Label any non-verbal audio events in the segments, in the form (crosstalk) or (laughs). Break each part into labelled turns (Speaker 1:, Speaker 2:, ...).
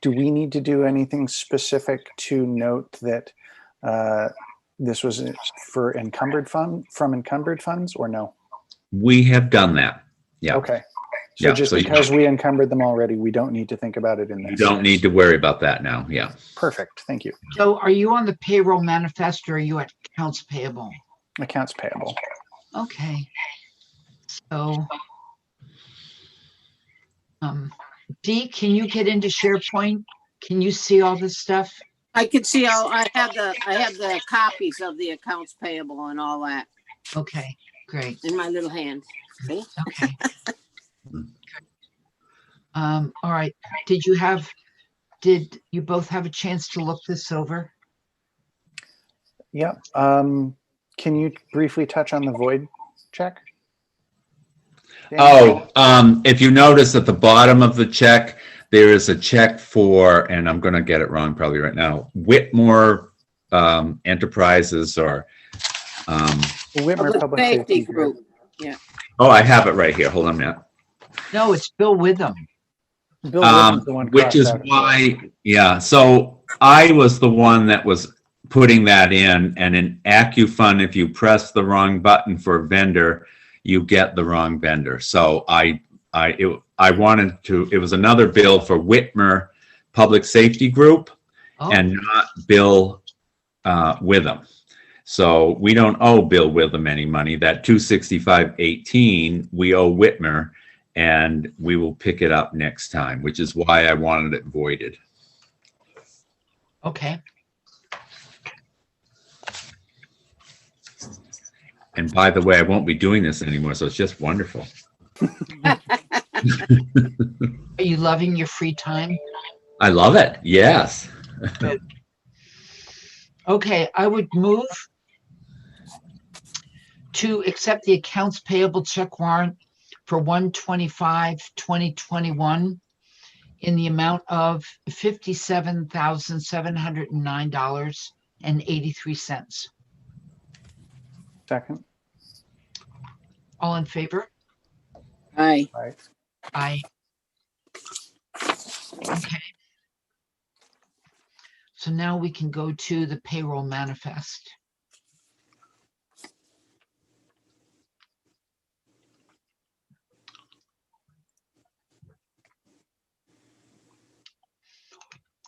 Speaker 1: do we need to do anything specific to note that uh, this was for encumbered fund, from encumbered funds or no?
Speaker 2: We have done that. Yeah.
Speaker 1: Okay. So
Speaker 2: Yeah,
Speaker 1: just
Speaker 2: so you-
Speaker 1: because we encumbered them already, we don't need to think about it in this?
Speaker 2: You don't need to worry about that now. Yeah.
Speaker 1: Perfect. Thank you.
Speaker 3: So are you on the payroll manifest or are you at accounts payable?
Speaker 1: Accounts payable.
Speaker 3: Okay. So. Um, Dee, can you get into SharePoint? Can you see all this stuff?
Speaker 4: I could see all, I have the, I have the copies of the accounts payable and all that
Speaker 3: Okay, great,
Speaker 4: in my little hand. See?
Speaker 3: okay. Um, all right, did you have, did you both have a chance to look this over?
Speaker 1: Yeah. Um, can you briefly touch on the void check? Daniel?
Speaker 2: Oh, um, if you notice at the bottom of the check, there is a check for, and I'm gonna get it wrong probably right now, Whitmore, um, Enterprises or, um,
Speaker 1: Whitmer Public Safety Group.
Speaker 2: oh, I have it right here. Hold on a minute.
Speaker 3: No, it's Bill Witham.
Speaker 1: Bill
Speaker 2: Um,
Speaker 1: Whitmer's the one
Speaker 2: which
Speaker 1: crossed
Speaker 2: is
Speaker 1: out.
Speaker 2: why, yeah, so I was the one that was putting that in and in AccuFund, if you press the wrong button for vendor, you get the wrong vendor. So I, I, it, I wanted to, it was another bill for Whitmer Public Safety Group
Speaker 3: Oh,
Speaker 2: and not Bill uh, Witham. So we don't owe Bill Witham any money. That two sixty-five eighteen, we owe Whitmer, and we will pick it up next time, which is why I wanted it voided.
Speaker 3: okay,
Speaker 2: And by the way, I won't be doing this anymore, so it's just wonderful.
Speaker 3: are you loving your free time?
Speaker 2: I love it. Yes.
Speaker 3: Okay, I would move to accept the accounts payable check warrant for 125-2021 in the amount of fifty-seven thousand, seven hundred and nine dollars and eighty-three cents.
Speaker 1: Second.
Speaker 3: All in favor?
Speaker 4: Aye.
Speaker 1: Right.
Speaker 3: Aye. Okay. So now we can go to the payroll manifest.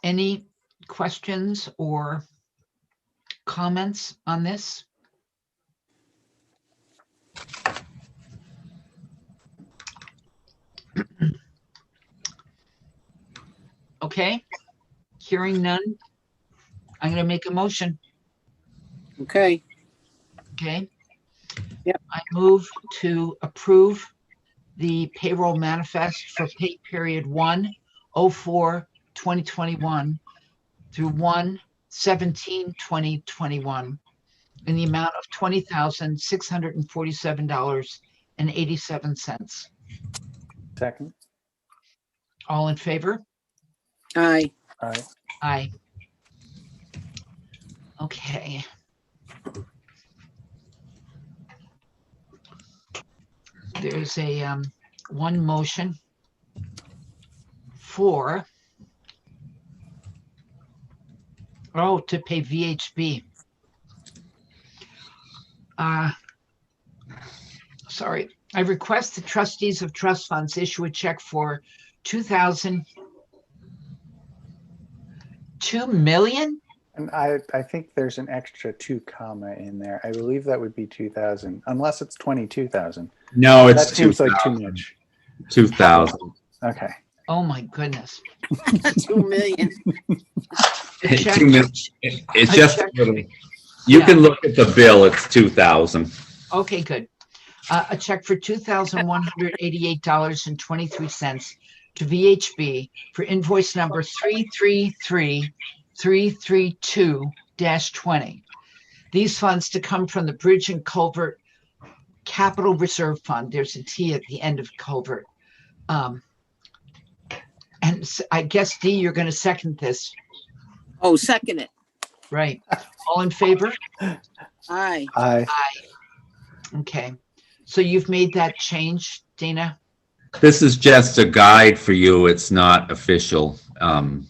Speaker 3: Any questions or comments on this? Okay, hearing none. I'm gonna make a motion.
Speaker 4: Okay.
Speaker 3: Okay.
Speaker 4: Yep.
Speaker 3: I move to approve the payroll manifest for pay period one oh four twenty twenty-one through one seventeen twenty twenty-one in the amount of twenty thousand, six hundred and forty-seven dollars and eighty-seven cents.
Speaker 1: Second.
Speaker 3: All in favor?
Speaker 4: Aye. (laughs)
Speaker 1: All right.
Speaker 3: Aye. Okay. There's a, um, one motion for oh, to pay VHB. Uh, sorry, I request the trustees of trust funds issue a check for two thousand two million?
Speaker 1: And I, I think there's an extra two comma in there. I believe that would be 2000, unless it's 22,000.
Speaker 2: No,
Speaker 1: That
Speaker 2: it's two
Speaker 1: seems like too
Speaker 2: thousand.
Speaker 1: much.
Speaker 2: Two thousand.
Speaker 1: Okay.
Speaker 3: Oh my goodness.
Speaker 4: Two million.
Speaker 3: The
Speaker 2: Two
Speaker 3: check-
Speaker 2: mil- It- It's just, a little- you
Speaker 3: Yeah.
Speaker 2: can look at the bill, it's two thousand.
Speaker 3: Okay, good. Uh, a check for two thousand one hundred eighty-eight dollars and twenty-three cents to VHB for invoice number three, three, three, three, three, two twenty. These funds to come from the Bridge and Culvert Capital Reserve Fund. There's a T at the end of culvert. Um, and s- I guess Dee, you're gonna second this,
Speaker 4: Oh, second it.
Speaker 3: right? All in favor?
Speaker 4: Aye.
Speaker 1: I,
Speaker 3: Okay, so you've made that change, Dana?
Speaker 2: This is just a guide for you, it's not official. Um,